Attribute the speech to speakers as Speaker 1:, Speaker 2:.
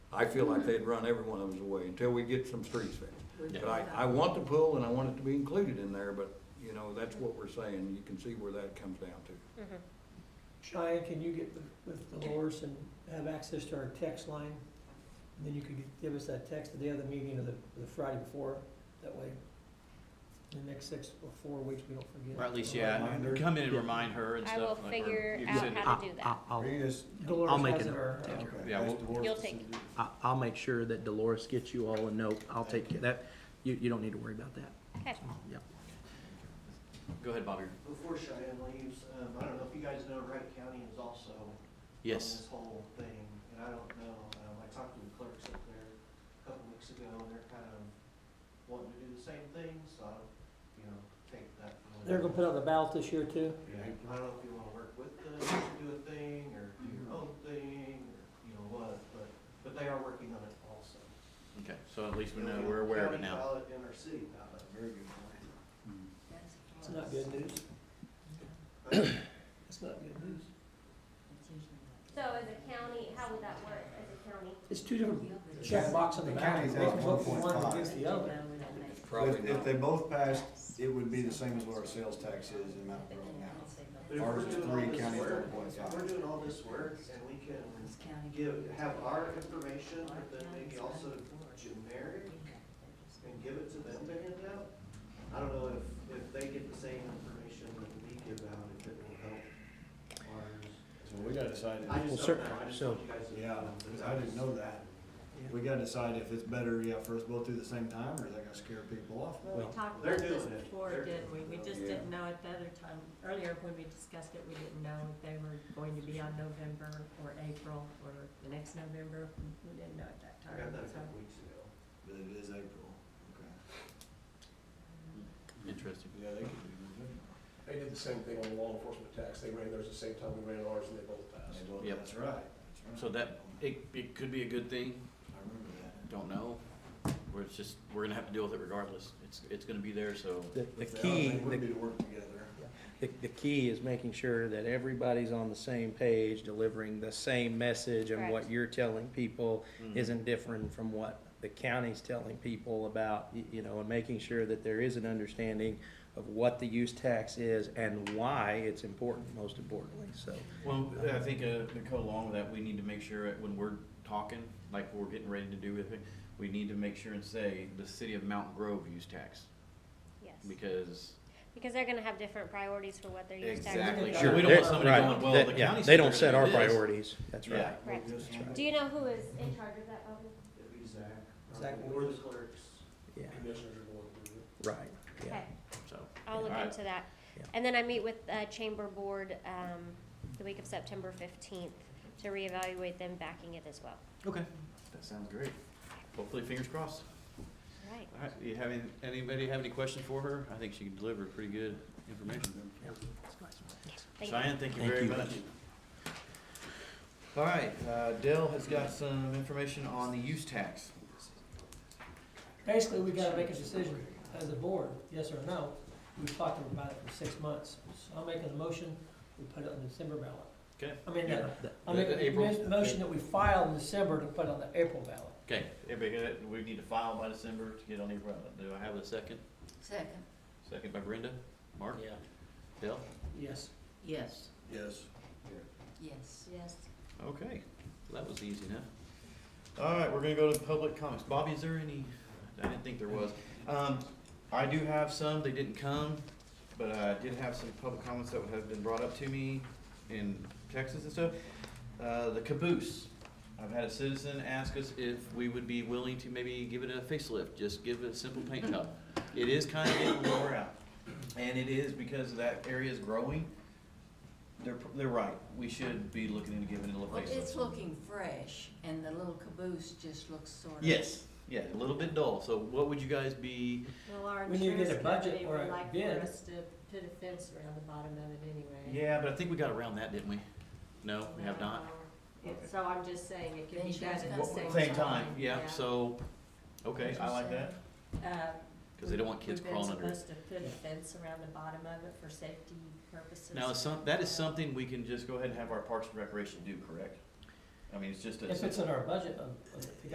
Speaker 1: I feel like they'd run every one of us away until we get some streets fixed.
Speaker 2: Yeah.
Speaker 1: But I, I want the pool and I want it to be included in there, but, you know, that's what we're saying, you can see where that comes down to.
Speaker 3: Mm-hmm.
Speaker 4: Cheyenne, can you get with- with Dolores and have access to our text line? And then you could give us that text the day of the meeting or the, the Friday before, that way, in the next six or four weeks, we don't forget.
Speaker 2: Or at least, yeah,
Speaker 5: Reminder.
Speaker 2: come in and remind her and
Speaker 3: I
Speaker 2: stuff.
Speaker 3: will
Speaker 2: like, or
Speaker 3: figure
Speaker 2: you can
Speaker 3: out
Speaker 2: send it-
Speaker 3: how to do
Speaker 6: Ah,
Speaker 3: that.
Speaker 5: Are you just-
Speaker 4: Dolores
Speaker 6: I'll make
Speaker 4: has uh,
Speaker 6: it.
Speaker 4: it, or-
Speaker 2: Yeah.
Speaker 5: okay,
Speaker 2: Yeah,
Speaker 5: that's
Speaker 2: we'll-
Speaker 5: Dolores
Speaker 3: You'll
Speaker 5: to
Speaker 3: take
Speaker 5: do.
Speaker 6: I, I'll make sure that Dolores gets you all a note. I'll take care, that, you, you don't need to worry about that.
Speaker 3: Okay.
Speaker 6: Yeah.
Speaker 2: Go ahead, Bobby.
Speaker 7: Before Cheyenne leaves, um, I don't know if you guys know, Wright County is also on
Speaker 2: Yes.
Speaker 7: this whole thing, and I don't know, um, I talked to the clerks up there a couple weeks ago, and they're kind of wanting to do the same thing, so, I don't, you know, take that. for what it
Speaker 4: They're gonna
Speaker 7: is.
Speaker 4: put out the ballot this year too?
Speaker 7: Yeah, I don't know if you wanna work with them, to do a thing, or do
Speaker 5: Mm-hmm.
Speaker 7: your own thing, or, you know, what, but, but they are working on it also.
Speaker 2: Okay, so at least we know, we're aware of it now.
Speaker 7: County ballot and our city ballot. Very good point.
Speaker 4: It's not good news. It's not good news.
Speaker 3: So as a county, how would that work as a county?
Speaker 4: It's two different checkbox on the
Speaker 5: The
Speaker 4: ballot.
Speaker 5: county's
Speaker 4: We can
Speaker 5: at
Speaker 4: vote for
Speaker 5: 1.5.
Speaker 4: One against the other.
Speaker 1: It's probably
Speaker 5: If- If
Speaker 1: not,
Speaker 5: they both passed, it would be the same as what our sales tax is in Mount Vernon now.
Speaker 7: But if
Speaker 5: Ours
Speaker 7: we're
Speaker 5: is
Speaker 7: doing all
Speaker 5: three,
Speaker 7: this
Speaker 5: county's
Speaker 7: work,
Speaker 5: one.
Speaker 7: if We're doing all this work and we can give, have our information, but then maybe also generic and give it to them to hand out. I don't know if, if they get the same information that we give out, if it will help ours.
Speaker 5: So we gotta decide,
Speaker 7: I
Speaker 5: if-
Speaker 6: Well,
Speaker 7: just
Speaker 6: sir-
Speaker 7: don't know, I just
Speaker 6: so-
Speaker 7: want you guys to.
Speaker 5: yeah, I didn't know that. We gotta decide if it's better, yeah, for us both do the same time, or is that gonna scare people off?
Speaker 8: Well, we talked
Speaker 7: They're
Speaker 8: about this
Speaker 7: doing it.
Speaker 8: before,
Speaker 7: They're
Speaker 8: didn't we?
Speaker 7: doing
Speaker 8: We
Speaker 7: it.
Speaker 8: just
Speaker 1: Yeah.
Speaker 8: didn't know at the other time, earlier when we discussed it, we didn't know if they were going to be on November or April or the next November. We didn't know at that
Speaker 7: I got
Speaker 8: time,
Speaker 7: that a
Speaker 8: so.
Speaker 7: couple weeks ago.
Speaker 5: But it is April, okay.
Speaker 2: Interesting.
Speaker 5: Yeah, they could do
Speaker 9: They did the same thing on the law enforcement tax. They ran theirs the same time we ran ours and they both
Speaker 5: that.
Speaker 9: passed.
Speaker 5: They both-
Speaker 2: Yep.
Speaker 5: Uh, That's right. that's right.
Speaker 2: So that, it, it could be a good thing,
Speaker 5: I remember that.
Speaker 2: don't know. We're just, we're gonna have to deal with it regardless. It's, it's gonna be there, so.
Speaker 6: The, the
Speaker 5: If they are,
Speaker 6: key,
Speaker 5: They
Speaker 6: the
Speaker 5: would be to work together.
Speaker 6: The, the key is making sure that everybody's on the same page, delivering the same message, and what
Speaker 3: Correct.
Speaker 6: you're telling people
Speaker 2: Mhm.
Speaker 6: isn't different from what the county's telling people about, y- you know, and making sure that there is an understanding of what the use tax is and why it's important, most importantly, so.
Speaker 2: Well, I think, uh, to go along with that, we need to make sure that when we're talking, like we're getting ready to do with it, we need to make sure and say the city of Mountain Grove use tax,
Speaker 3: Yes,
Speaker 2: because
Speaker 3: because they're gonna have different priorities for what they're used to.
Speaker 2: Exactly.
Speaker 4: Sure.
Speaker 2: We don't want somebody
Speaker 6: Right,
Speaker 2: going, well,
Speaker 6: that-
Speaker 2: the
Speaker 6: yeah,
Speaker 2: county
Speaker 6: They
Speaker 2: said
Speaker 6: don't
Speaker 2: they're
Speaker 6: set
Speaker 2: gonna
Speaker 6: our
Speaker 2: do this.
Speaker 6: priorities, that's
Speaker 2: Yeah.
Speaker 6: right.
Speaker 3: Correct.
Speaker 5: Yes, ma'am.
Speaker 3: Do you know who is in charge of that, Bobby?
Speaker 7: It'd be Zach. or-
Speaker 4: Zach
Speaker 7: Or the
Speaker 4: Williams.
Speaker 7: clerks.
Speaker 6: Yeah,
Speaker 9: Commissioners are going through it.
Speaker 6: right, yeah.
Speaker 3: Okay,
Speaker 2: so.
Speaker 3: I'll look
Speaker 2: Alright.
Speaker 3: into that.
Speaker 6: Yeah.
Speaker 3: And then I meet with, uh, Chamber Board, um, the week of September fifteenth to reevaluate them backing it as well.
Speaker 2: Okay. That sounds great. Hopefully, fingers crossed.
Speaker 3: All right.
Speaker 2: All right, you have any, anybody have any questions for her? I think she can deliver pretty good information.
Speaker 3: Thank you.
Speaker 2: Cheyenne, thank you
Speaker 6: Thank
Speaker 2: very
Speaker 6: you.
Speaker 2: much. All right, uh, Dell has got some information on the use tax.
Speaker 4: Basically, we gotta make a decision as a board, yes or no. We've talked about it for six months. So I'm making a motion, we put it on the December ballot.
Speaker 2: Okay.
Speaker 4: I mean, uh,
Speaker 6: That-
Speaker 4: I'm making
Speaker 2: The April-
Speaker 4: a motion that we file in December to put on the April ballot.
Speaker 2: Okay, everybody, get it? we need to file by December to get on the umbrella. Do I have a second?
Speaker 8: Second,
Speaker 2: Second by Brenda? Mark?
Speaker 6: Yeah.
Speaker 2: Dell?
Speaker 4: Yes.
Speaker 8: yes,
Speaker 5: Yes.
Speaker 8: yes. Yes.
Speaker 2: Okay, that was easy enough. All right, we're gonna go to public comments. Bobby, is there any, I didn't think there was. Um, I do have some, they didn't come, but I did have some public comments that have been brought up to me in Texas and stuff. Uh, the caboose. I've had a citizen ask us if we would be willing to maybe give it a facelift, just give it a simple paint job. It is kind of getting lower out, and it is because that area is growing. They're, they're right, we should be looking into giving it a little
Speaker 10: Well,
Speaker 2: facelift.
Speaker 10: it's looking fresh, and the little caboose just looks sort of.
Speaker 2: Yes, yeah, a little bit dull. So what would you guys be?
Speaker 8: Well, our
Speaker 4: We need to get a
Speaker 8: insurance
Speaker 4: budget
Speaker 8: company
Speaker 4: or
Speaker 8: would
Speaker 4: a
Speaker 8: like
Speaker 4: bid.
Speaker 8: for us to put a fence around the bottom of it anyway.
Speaker 2: Yeah, but I think we got around that, didn't we? No, we have not.
Speaker 8: It- So I'm just saying it can be done
Speaker 10: Insurance
Speaker 8: at the
Speaker 10: company.
Speaker 8: same
Speaker 2: Same
Speaker 8: time.
Speaker 2: time, yeah. So, okay, I like that
Speaker 8: Uh,
Speaker 2: because they don't want kids crawling under.
Speaker 8: We've
Speaker 2: it.
Speaker 8: been supposed to put a fence around the bottom of it for safety purposes.
Speaker 2: Now, is some, that is something we can just go ahead and have our Parks and Recreation do, correct? I mean, it's just a.
Speaker 4: If it's in our budget, uh, I'm, I'm-